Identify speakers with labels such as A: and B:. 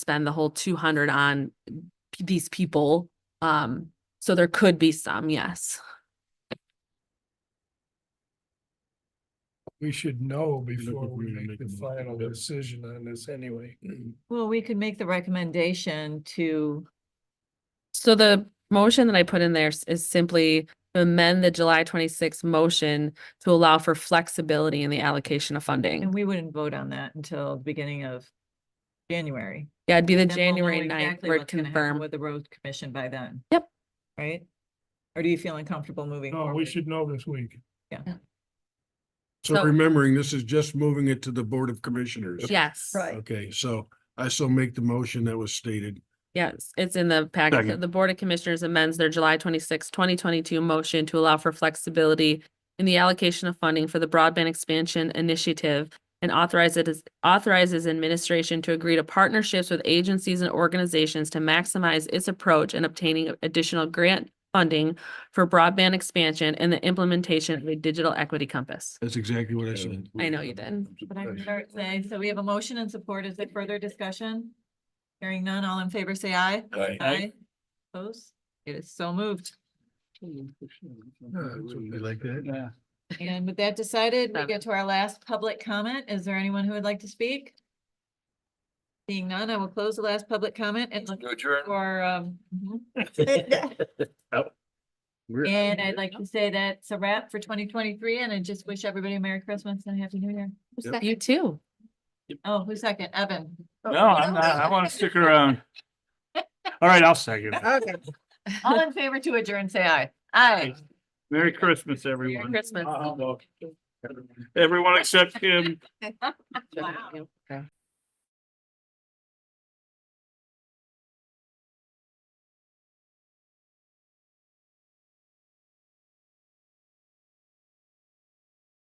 A: spend the whole two hundred on p- these people. Um, so there could be some, yes.
B: We should know
C: if
B: before we
C: we can
B: make
C: make
B: the
C: a mo-
B: final
C: yeah.
B: decision on this anyway.
D: Well, we could make the recommendation to,
A: So the motion that I put in there s- is simply to amend the July twenty-sixth motion to allow for flexibility in the allocation of funding.
D: and we wouldn't vote on that until the beginning of January.
A: Yeah, it'd be the
D: Then we'll know
A: January ninth
D: exactly
A: word
D: what's gonna happen
A: confirm.
D: With the road commission by then.
A: Yep.
D: Right? Or do you feel uncomfortable moving
B: No,
D: forward?
B: we should know this week.
C: So
A: So-
C: remembering, this is just moving it to the Board of Commissioners.
A: Yes.
D: Right.
C: Okay, so I still make the motion that was stated.
A: Yes, it's in the packet. So
C: Second.
A: The Board of Commissioners amends their July 26, twenty twenty-two motion to allow for flexibility in the allocation of funding for the broadband expansion initiative and authorize it as authorizes administration to agree to partnerships with agencies and organizations to maximize its approach in obtaining additional grant funding for broadband expansion and the implementation of a digital equity compass.
C: That's exactly what I said.
A: I know you did.
D: But I'm sorry, say- so we have a motion and support. Is there further discussion? Hearing none, all in favor, say aye.
C: Aye.
D: Opposed? It is so moved.
C: You like that?
B: Yeah.
D: And with that decided, we
A: Seven.
D: get to our last public comment. Is there anyone who would like to speak? Seeing none, I will close the last public comment and look for, um, mhm.
E: Oh.
D: and I'd like to say that's a wrap for twenty twenty-three, and I just wish everybody a Merry Christmas and a Happy New Year.
A: You too.
D: Oh, who's second? Evan.
E: No, I'm not, I want to stick around. All right, I'll second. it.
D: Okay. All in favor to adjourn, say aye. Aye.
E: Merry Christmas,
A: Merry
E: everyone.
A: Christmas.
E: Everyone except Kim.
D: Wow.